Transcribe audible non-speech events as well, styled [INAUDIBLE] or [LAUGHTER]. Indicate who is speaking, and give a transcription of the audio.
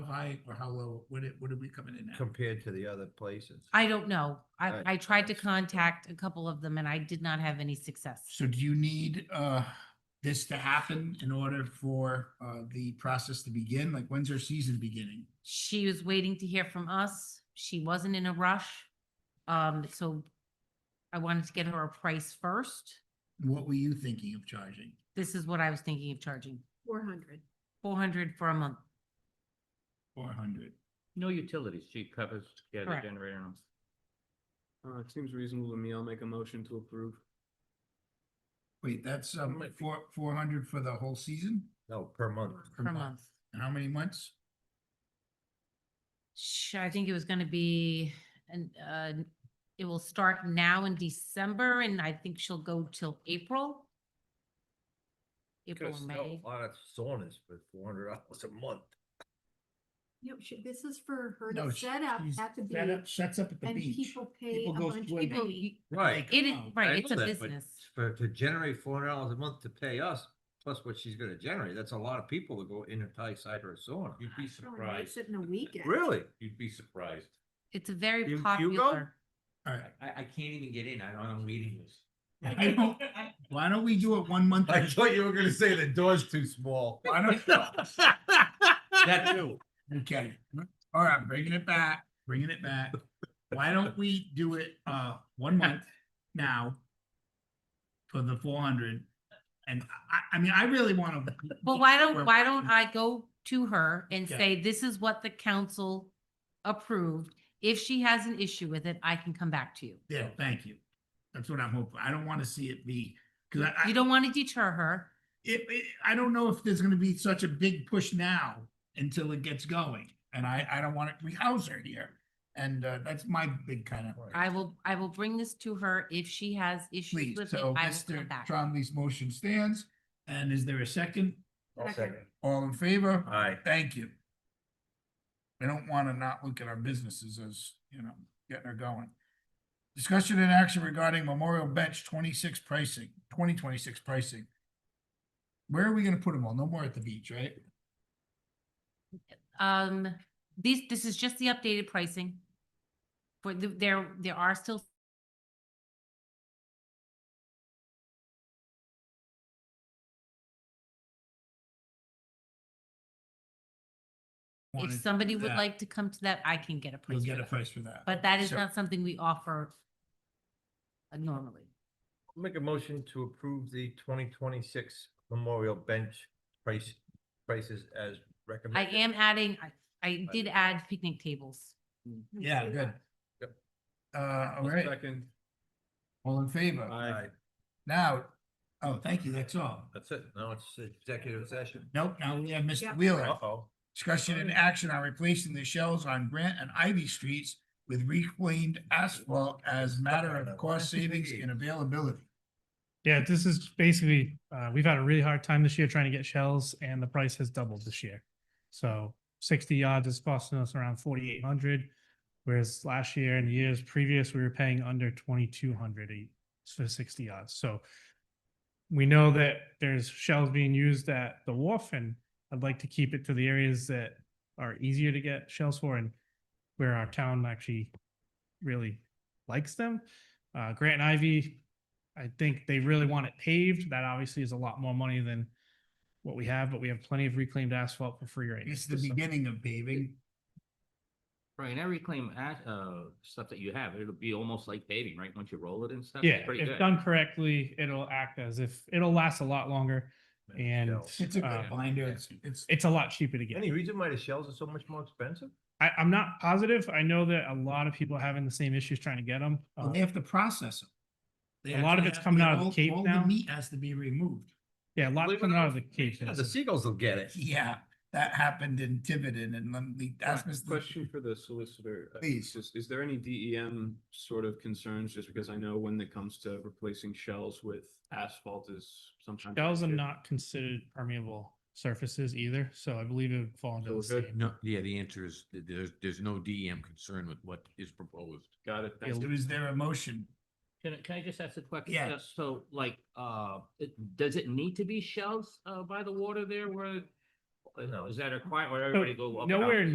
Speaker 1: high or how low, what it, what are we coming in at?
Speaker 2: compared to the other places?
Speaker 3: I don't know. I,
Speaker 2: Right.
Speaker 3: I tried to contact a couple of them and I did not have any success.
Speaker 1: So do you need, uh, this to happen in order for, uh, the process to begin? Like, when's our season beginning?
Speaker 3: She was waiting to hear from us. She wasn't in a rush. Um, so I wanted to get her a price first.
Speaker 1: What were you thinking of charging?
Speaker 3: This is what I was thinking of charging,
Speaker 4: Four hundred.
Speaker 3: four hundred for a month.
Speaker 1: Four hundred?
Speaker 5: No utilities, she covers, yeah, the
Speaker 3: Correct.
Speaker 5: generator. and-
Speaker 6: Uh, it seems reasonable to me. I'll make a motion to approve.
Speaker 1: Wait, that's, um,
Speaker 6: Might be.
Speaker 1: four, four hundred for the whole season?
Speaker 2: No, per month.
Speaker 1: Per
Speaker 3: per
Speaker 1: month.
Speaker 3: month.
Speaker 1: And how many months?
Speaker 3: Sh- I think it was gonna be, and, uh, it will start now in December and I think she'll go till April. April,
Speaker 2: Because
Speaker 3: or
Speaker 2: no,
Speaker 3: May.
Speaker 2: A lot of saunas for four hundred dollars a month.
Speaker 4: No, she- this is for her
Speaker 1: No,
Speaker 4: to
Speaker 1: she-
Speaker 4: set up
Speaker 1: she's
Speaker 4: at the
Speaker 1: set up-
Speaker 4: beach
Speaker 1: Shuts up at the
Speaker 4: and
Speaker 1: beach.
Speaker 4: people pay a
Speaker 1: People go
Speaker 4: bunch of
Speaker 1: swimming.
Speaker 3: People,
Speaker 4: money.
Speaker 3: you-
Speaker 2: Right.
Speaker 1: Like,
Speaker 3: It is,
Speaker 1: oh,
Speaker 2: I
Speaker 3: right, it's a
Speaker 2: know that, but
Speaker 3: business.
Speaker 2: For, to generate four hundred dollars a month to pay us, plus what she's gonna generate, that's a lot of people to go in and tie side her sauna.
Speaker 7: You'd be
Speaker 4: Throwing nights
Speaker 7: surprised.
Speaker 4: In a weekend.
Speaker 2: Really?
Speaker 7: You'd be surprised.
Speaker 3: It's a
Speaker 2: You-
Speaker 3: very
Speaker 2: you go?
Speaker 3: popular.
Speaker 1: All [LAUGHS] right.
Speaker 7: I, I can't even get in. I'm on a waiting list.
Speaker 1: I don't, why don't we do it one month? at
Speaker 2: [LAUGHS] I
Speaker 1: a
Speaker 2: thought you were gonna say the door's too small.
Speaker 1: Why [LAUGHS] don't-
Speaker 7: That too.
Speaker 1: Okay, all right, bringing it back, bringing it back. Why don't we do it, uh, one month now? For the four hundred, and I, I mean, I really wanna.
Speaker 3: But why
Speaker 1: Well-
Speaker 3: don't, why don't I go to her and
Speaker 1: Yeah.
Speaker 3: say, this is what the council approved. If she has an issue with it, I can come back to you.
Speaker 1: Yeah, thank you. That's what I'm hoping. I don't wanna see it be, cause I,
Speaker 3: You
Speaker 1: I,
Speaker 3: don't want to deter her.
Speaker 1: it, it, I don't know if there's gonna be such a big push now. Until it gets going, and I, I don't wanna, we house her here, and, uh, that's my big kind of.
Speaker 3: I will, I will bring this to her. If she has issues
Speaker 1: Please,
Speaker 3: with it, I
Speaker 1: so
Speaker 3: will
Speaker 1: Mr.
Speaker 3: come back.
Speaker 1: Trombley's motion stands, and is there a second?
Speaker 2: I'll second.
Speaker 1: All in favor?
Speaker 2: Aye.
Speaker 1: Thank you. We don't want to not look at our businesses as, you know, getting her going. Discussion and action regarding Memorial Bench twenty-six pricing, twenty twenty-six pricing. Where are we gonna put them all? No more at the beach, right?
Speaker 3: Um, these, this is just the updated pricing. For the, there, there are still
Speaker 1: Wanna
Speaker 3: If
Speaker 1: do
Speaker 3: somebody would
Speaker 1: that,
Speaker 3: like to come to that, I can get a
Speaker 1: You'll
Speaker 3: price.
Speaker 1: get
Speaker 3: for
Speaker 1: a
Speaker 3: that.
Speaker 1: price for that.
Speaker 3: But that is
Speaker 1: So-
Speaker 3: not something we offer uh, normally.
Speaker 2: Make a motion to approve the twenty twenty-six Memorial Bench price, prices as
Speaker 3: I
Speaker 2: recommended.
Speaker 3: am adding, I, I
Speaker 2: Right.
Speaker 3: did add picnic tables.
Speaker 1: Yeah, good.
Speaker 2: Yep.
Speaker 1: Uh, all
Speaker 6: I'll
Speaker 1: right,
Speaker 6: Second.
Speaker 1: all in favor?
Speaker 6: Aye.
Speaker 1: Now, oh, thank you, that's all.
Speaker 2: That's it. Now it's executive session.
Speaker 1: Nope, now we have Mr.
Speaker 4: Yep.
Speaker 1: Wheeler.
Speaker 2: Uh-oh.
Speaker 1: Discussion and action on replacing the shells on Grant and Ivy Streets with reclaimed asphalt as matter of cost savings and availability.
Speaker 8: Yeah, this is basically, uh, we've had a really hard time this year trying to get shells and the price has doubled this year. So sixty yards is costing us around forty-eight hundred. Whereas last year and the years previous, we were paying under twenty-two hundred for sixty yards. So we know that there's shells being used at the wharf and I'd like to keep it to the areas that are easier to get shells for and where our town actually really likes them. Uh, Grant and Ivy, I think they really want it paved. That obviously is a lot more money than what we have, but we have plenty of reclaimed asphalt for free right now.
Speaker 1: It's the
Speaker 8: So-
Speaker 1: beginning of paving.
Speaker 5: Right, and every claim, at, uh, stuff that you have, it'll be almost like paving, right? Once you roll it and stuff. it's
Speaker 8: Yeah,
Speaker 5: Pretty
Speaker 8: if
Speaker 5: good.
Speaker 8: done correctly, it'll act as if, it'll last a lot longer and
Speaker 1: It's a good
Speaker 8: uh,
Speaker 1: binder. It's, it's,
Speaker 8: it's a lot cheaper to get.
Speaker 2: Any reason why the shells are so much more expensive?
Speaker 8: I, I'm not positive. I know that a lot of people are having the same issues trying to get Um, them.
Speaker 1: well, they have to process them. They
Speaker 8: uh, A lot of
Speaker 1: actually
Speaker 8: it's
Speaker 1: have-
Speaker 8: coming
Speaker 1: they-
Speaker 8: out of the
Speaker 1: all-
Speaker 8: Cape
Speaker 1: all
Speaker 8: now.
Speaker 1: Meat has to be removed.
Speaker 8: Yeah, a lot
Speaker 2: Believe it
Speaker 8: coming
Speaker 2: or not,
Speaker 8: out of the cave.
Speaker 2: Yeah, the seagulls will get [LAUGHS] it.
Speaker 1: Yeah, that happened in Tiverton and let me ask Mr.
Speaker 6: Question for the solicitor. Uh,
Speaker 1: Please.
Speaker 6: Is, is there any DEM sort of concerns? Just because I know when it comes to replacing shells with asphalt is sometimes.
Speaker 8: Shells are
Speaker 6: an issue.
Speaker 8: not considered permeable surfaces either, so I believe it would fall
Speaker 6: So
Speaker 8: under the
Speaker 6: we're good?
Speaker 8: same.
Speaker 7: No, yeah, the answer is th- there's, there's no DEM concern with what is proposed.
Speaker 6: Got it. Thank
Speaker 8: Yeah,
Speaker 6: you.
Speaker 1: Is there a motion?
Speaker 5: Can, I- can I just ask a question?
Speaker 1: Yeah.
Speaker 5: Uh, So like, uh, it- does it need to be shelves, uh, by the water there where?
Speaker 2: No.
Speaker 5: Is that a quiet, where
Speaker 8: So
Speaker 5: everybody go? up and out?
Speaker 8: Nowhere